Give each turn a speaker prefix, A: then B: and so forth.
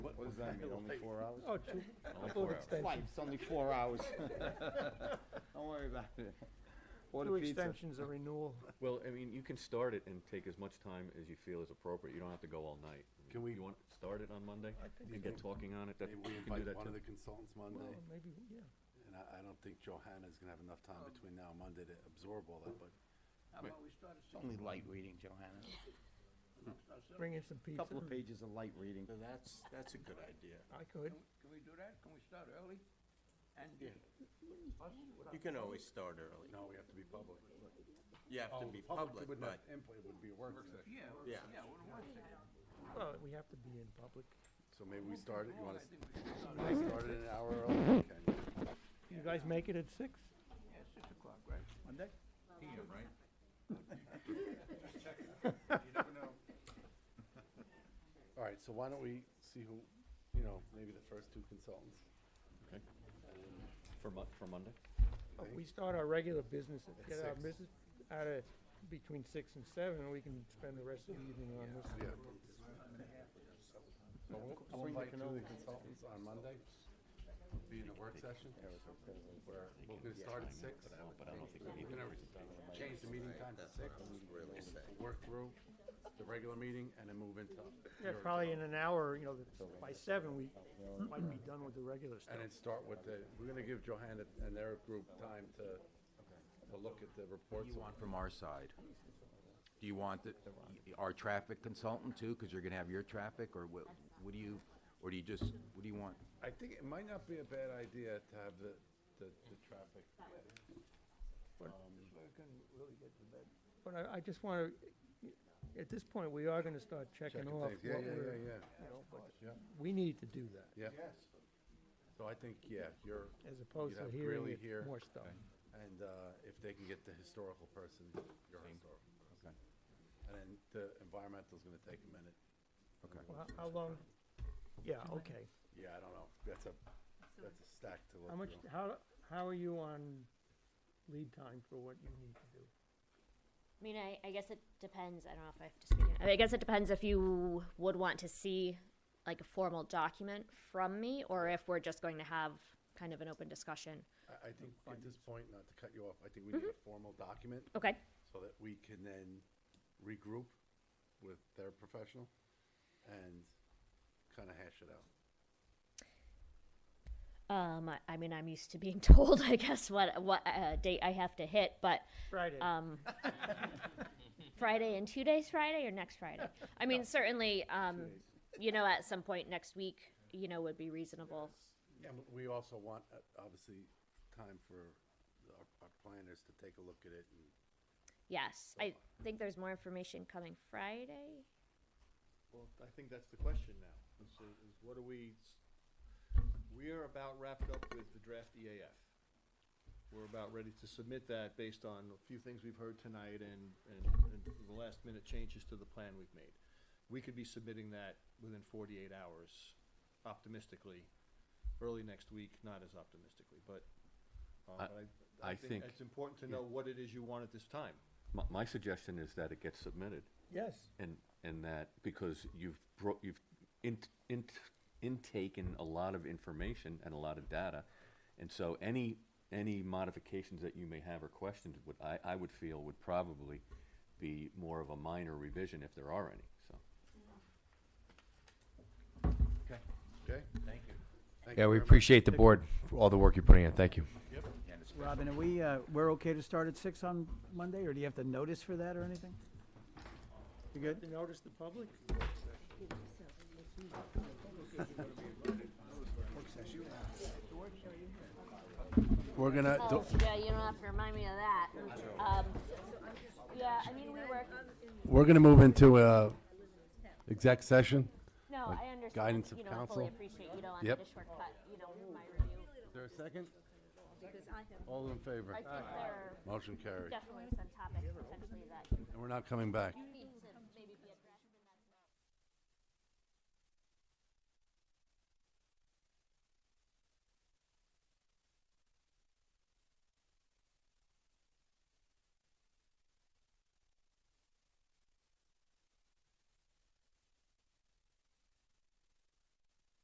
A: What does that mean, only four hours?
B: Oh, two, couple of
A: four hours.
B: extensions,
A: Life, it's only four hours. Don't worry about it. Order
B: two
A: pizza.
B: extensions, a renewal.
C: Well, I mean, you can start it and take as much time as you feel is appropriate. You don't have to go all night. I mean,
D: Can we-
C: You want, to start it on Monday
D: you
C: and get
D: think-
C: talking on it? That,
D: Maybe we
C: you can do
D: invite
C: that
D: one of
C: too.
D: the consultants
B: Well,
D: Monday,
B: maybe, yeah.
D: and I, I don't think Johanna's gonna have enough
E: Oh.
D: time between now and Monday to absorb all that, but
E: How about we start at
A: It's
E: six?
A: only light reading, Johanna.
E: No, start at seven.
B: Bring in some pizza.
A: Couple of pages of light reading.
D: That's, that's a good idea.
B: I could.
E: Can- Can we do that? Can we start early? And
F: Yeah.
E: us without-
F: You can always start early.
D: No, we have to be public.
F: You have to be public,
D: Wouldn't
F: but
D: have input, it would be a work session.
E: Yeah, or-
F: Yeah.
E: yeah, we'll work it.
B: Well, we have to be in public.
D: So maybe we start it, you
E: Well, Oh,
D: wanna,
E: I think we should start
D: I started an hour early, okay,
B: You guys make it at six?
E: at- yeah, six o'clock, right?
A: Monday?
D: all right, so why don't we see who, you know, maybe the first two consultants?
C: Okay. For Mon, for Monday?
B: Uh, We start our regular business, at-
D: At
B: get our
D: six.
B: business out of between six and seven, and we can spend the rest of the evening on this.
D: Yeah. So we'll- I'll invite two of the consultants on Monday, be in the work session, where we're gonna start at six. We're gonna change the meeting time to six, work through the regular meeting, and then move into.
B: Yeah,
D: your-
B: probably in an hour, you know, the- by seven, we might be done with the regular stuff.
D: And then start with the, we're gonna give Johanna and their group time to, to look at the reports.
G: you want from our side? Do you want the, our traffic consultant too, because you're gonna have your traffic, or what, what do you, or do you just, what do you want?
D: I think it might not be a bad idea to have the, the, the traffic.
B: But I, I just want to, at this point, we are going to start checking
D: Checking
B: off
D: things. Yeah,
B: what
D: yeah,
B: we're,
D: yeah,
B: you
D: yeah.
B: know, but
D: Yeah,
B: we need to do that
D: yeah. So I think, yeah, you're,
B: as opposed to
D: have
B: hearing
D: Greeley here.
B: it- more stuff.
D: and, uh, if they can get the historical person, your historical. person. And then the environmental's gonna take a minute.
B: Well, how- How long, yeah, okay.
D: Yeah, I don't know, that's a, that's a stack to look
B: How much,
D: through.
B: how, how are you on lead time for what you need to do?
H: I mean, I, I guess it depends. I don't know if I have to speak. I, mean, I guess it depends if you would want to see like a formal document from me or if we're just going to have kind of an open discussion.
D: I, I think at this point, not to cut you off, I think we need a formal document
H: Okay.
D: so that we can then regroup with their professional and kinda hash it out.
H: Um, I, I mean, I'm used to being told, I guess, what, what uh, date I have to hit, but
B: Friday,
H: um, Friday and two days Friday or next Friday? I mean, certainly, um, you know, at some point next week, you know, would be reasonable.
D: And w- we also want, uh, obviously, time for our, our planners to take a look at it and
H: Yes. I think there's more information coming Friday.
I: Well, I think that's the question now, is, is what are we, we are about wrapped up with the draft EAF. We're about ready to submit that based on a few things we've heard tonight and, and, and the last minute changes to the plan we've made. We could be submitting that within forty-eight hours, optimistically, early next week, not as optimistically, but,
C: I-
I: uh, but
C: I think-
I: It's important to know what it is you want at this time.
C: My, my suggestion is that it gets submitted
B: yes.
C: and, and that, because you've bro, you've in, in, intaken a lot of information and a lot of data. And so any, any modifications that you may have or questions would, I, I would feel would probably be more of a minor revision if there are any, so.
D: Okay? Thank you.
J: Yeah, we appreciate the board for all the work you're putting in. Thank you.
K: Robin, are we, uh, we're okay to start at six on Monday, or do you have to notice for that or anything? You good?
B: You notice the public?
D: We're gonna,
H: Oh, yeah, you don't have to remind me of that. Um, yeah, I mean, we work,
D: we're gonna move into a exec session.
H: no, I understand.
D: guidance of
H: You know, I fully
D: counsel.
H: appreciate you don't want me
D: Yep.
H: to shortcut, you know, my review.
D: Is there a second? All in favor?
H: I think there are
D: Motion carried.
H: definitely some topics potentially that
D: And we're not coming back.
H: needs